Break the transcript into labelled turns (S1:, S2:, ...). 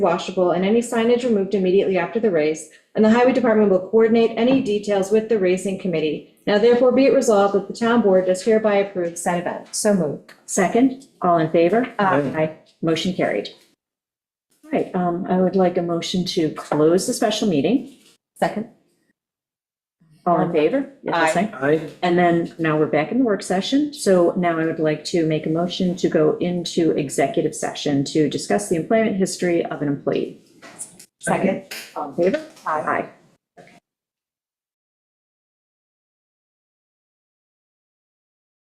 S1: washable and any signage removed immediately after the race, and the highway department will coordinate any details with the racing committee. Now therefore be it resolved that the town board does hereby approve said event. So moved.
S2: Second, all in favor?
S1: Aye.
S2: Motion carried. All right, um, I would like a motion to close the special meeting.
S1: Second.
S2: All in favor? Yes, that's
S1: Aye.
S2: right.
S3: Aye.
S2: And then now we're back in the work session. So now I would like to make a motion to go into executive session to discuss the employment history of an employee.
S1: Second.
S2: All in favor? Aye.